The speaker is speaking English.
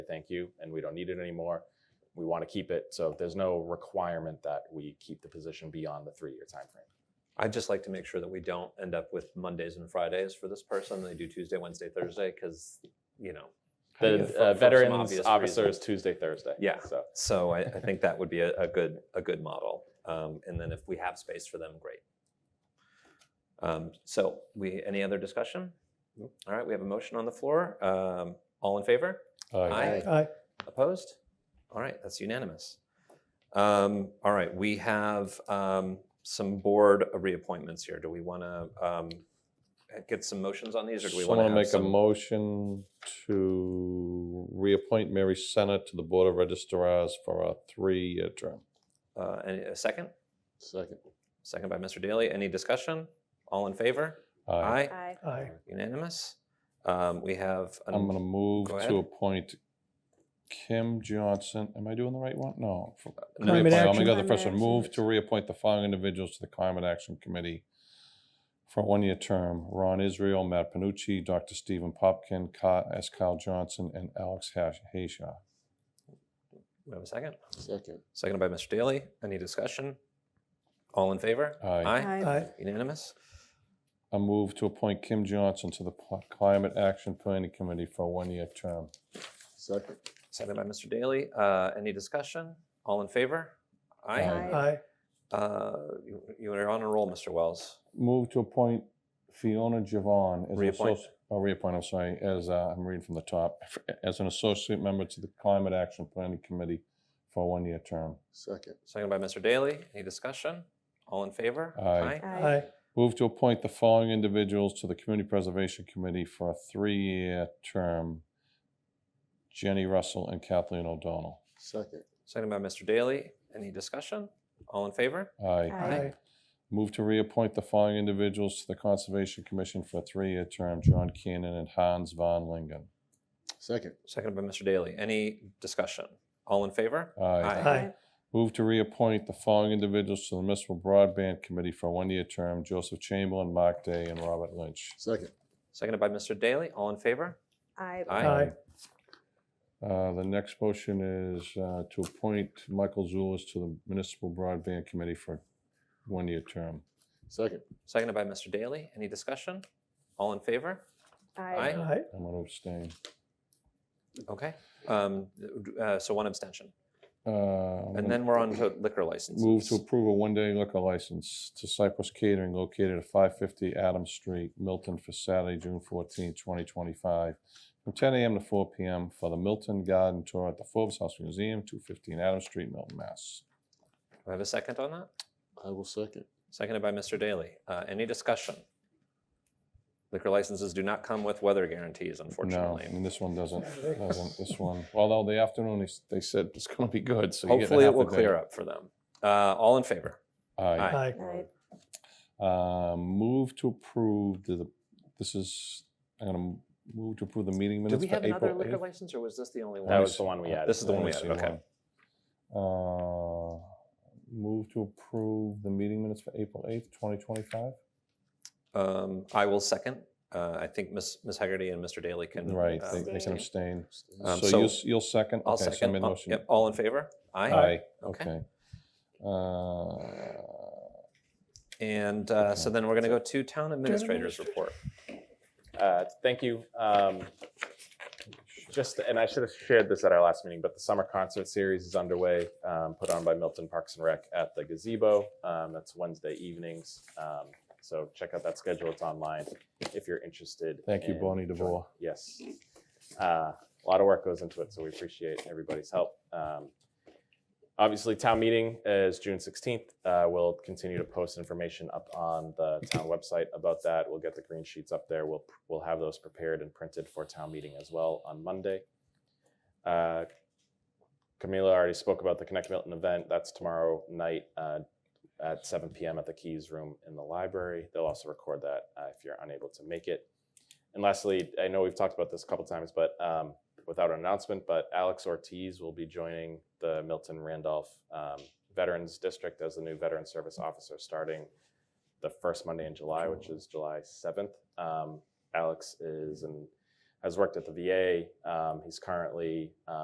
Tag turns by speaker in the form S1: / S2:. S1: thank you and we don't need it anymore. We want to keep it. So there's no requirement that we keep the position beyond the three year time frame.
S2: I'd just like to make sure that we don't end up with Mondays and Fridays for this person. They do Tuesday, Wednesday, Thursday, because, you know.
S3: How do you
S1: The
S3: get-
S2: for-
S1: uh,
S2: for some
S1: veterans
S2: obvious
S1: officers
S2: reasons.
S1: Tuesday, Thursday.
S2: Yeah.
S1: So
S2: So I, I think that would be a, a good, a good model. Um, and then if we have space for them, great. Um, so we, any other discussion? All right, we have a motion on the floor. Um, all in favor? Aye.
S3: Aye.
S2: Opposed? All right, that's unanimous. Um, all right, we have um, some board reappointments here. Do we want to um, get some motions on these, or do we
S3: Just
S2: want to
S3: want to
S2: have
S3: make a
S2: some?
S3: motion to reappoint Mary Senna to the Board of Registrars for a three-year term.
S2: uh, any- a second,
S3: Second.
S2: second by Mr. Daly. Any discussion? All in favor? Aye.
S4: Aye.
S5: Aye.
S2: Unanimous. Um, we have. an-
S3: I'm going to move
S2: Go
S3: to
S2: ahead.
S3: appoint Kim Johnson. Am I doing the right one? No. for-
S2: no,
S5: Climate
S3: reappoint- I'm
S5: Action.
S3: going to go the
S4: Climate
S3: first one.
S4: Action.
S3: Move to reappoint the following individuals to the Climate Action Committee for a one-year term. Ron Israel, Matt Panucci, Dr. Stephen Popkin, Ka- S. Kyle Johnson, and Alex Hash- Hayshaw.
S2: we have a second.
S5: Second.
S2: Seconded by Mr. Daly. Any discussion? All in favor?
S3: Aye.
S5: Aye.
S2: Unanimous.
S3: A move to appoint Kim Johnson to the Pl- Climate Action Planning Committee for a one-year term.
S5: Second.
S2: Seconded by Mr. Daly. Uh, any discussion? All in favor? Aye.
S3: Aye.
S5: Aye.
S2: Uh, you, you are on a roll, Mr. Wells.
S3: Move to appoint Fiona Javon as an
S2: Reappoint.
S3: associate. Oh, reappoint, I'm sorry, as, uh, I'm reading from the top, as an associate member to the Climate Action Planning Committee for a one-year term.
S5: Second.
S2: Second by Mr. Daly. Any discussion? All in favor?
S3: Aye.
S4: Aye.
S3: Move to appoint the following individuals to the Community Preservation Committee for a three-year term. Jenny Russell and Kathleen O'Donnell.
S5: Second.
S2: Second by Mr. Daly. Any discussion? All in favor?
S3: Aye.
S4: Aye.
S3: Move to reappoint the following individuals to the Conservation Commission for a three-year term, John Keenan and Hans von Lingen.
S5: Second.
S2: Second by Mr. Daly. Any discussion? All in favor?
S3: Aye.
S4: Aye.
S3: Move to reappoint the following individuals to the Municipal Broadband Committee for a one-year term, Joseph Chamberlain, Mark Day, and Robert Lynch.
S5: Second.
S2: Seconded by Mr. Daly. All in favor?
S4: Aye.
S2: Aye.
S3: Uh, The next motion is uh, to appoint Michael Zulus to the Municipal Broadband Committee for a one-year term.
S5: Second.
S2: Seconded by Mr. Daly. Any discussion? All in favor?
S4: Aye.
S2: Aye.
S3: I'm going to abstain.
S2: Okay. Um, uh, so one abstention.
S3: Uh, I'm
S2: And
S3: gonna-
S2: then we're on to liquor licenses.
S3: Move to approve a one-day liquor license to Cypress Catering located at 550 Adams Street, Milton, for Saturday, June 14, 2025, from 10 a.m. to 4 p.m. for the Milton Garden Tour at the Forbes House Museum, 215 Adams Street, Milton, Mass.
S2: Do I have a second on that?
S5: I will second.
S2: Seconded by Mr. Daly. Uh, any discussion? Liquor licenses do not come with weather guarantees,
S3: No,
S2: unfortunately.
S3: and this one doesn't, doesn't, this one, although the afternoon, they s- they said it's going to be good, so you get
S2: Hopefully, it will clear up for them. Uh, all in favor?
S3: Aye.
S4: Aye.
S3: Uh, Move to approve the, this is, I'm going to move to approve the meeting
S2: Do
S3: minutes
S2: we
S3: for
S2: have another
S3: April
S2: liquor
S3: 8th.
S2: license, or was this the only one?
S1: that was the one we added.
S2: This is the one we
S3: Let me
S2: added,
S3: see,
S2: okay.
S3: one. Uh, Move to approve the meeting minutes for April 8th, 2025?
S2: Um, I will second. Uh, I think Ms. Ms. Hegarty and Mr. Daly can.
S3: Right,
S2: uh,
S3: they- they can
S4: Abstain.
S3: abstain.
S2: Um,
S3: So
S2: so
S3: you'll, s- you'll second?
S2: I'll
S3: Okay, so I
S2: second.
S3: made a
S2: Uh,
S3: motion.
S2: yep, all in favor?
S3: Aye,
S2: Okay.
S3: okay. Uh,
S2: And uh, so
S3: Okay.
S2: then we're going to go to town administrator's
S4: administrator.
S2: report.
S1: Uh, Thank you. Um, Just, and I should have shared this at our last meeting, but the summer concert series is underway, um, put on by Milton Parks and Rec at the gazebo. Um, That's Wednesday evenings. Um, So check out that schedule. It's online if you're interested.
S3: Thank you,
S1: in
S3: Bonnie
S1: joining.
S3: DeVore.
S1: Yes. Uh, A lot of work goes into it, so we appreciate everybody's help. Um, Obviously, town meeting is June 16th. Uh, We'll continue to post information up on the town website about that. We'll get the green sheets up there. We'll, we'll have those prepared and printed for town meeting as well on Monday. Uh, Camila already spoke about the Connect Milton event. That's tomorrow night uh, at 7 p.m. at the Keys Room in the library. They'll also record that uh, if you're unable to make it. And lastly, I know we've talked about this a couple times, but um, without an announcement, but Alex Ortiz will be joining the Milton Randolph um, Veterans District as the new Veteran Service Officer starting the first Monday in July, which is July 7th. Um, Alex is and has worked at the VA. Um, he's currently um,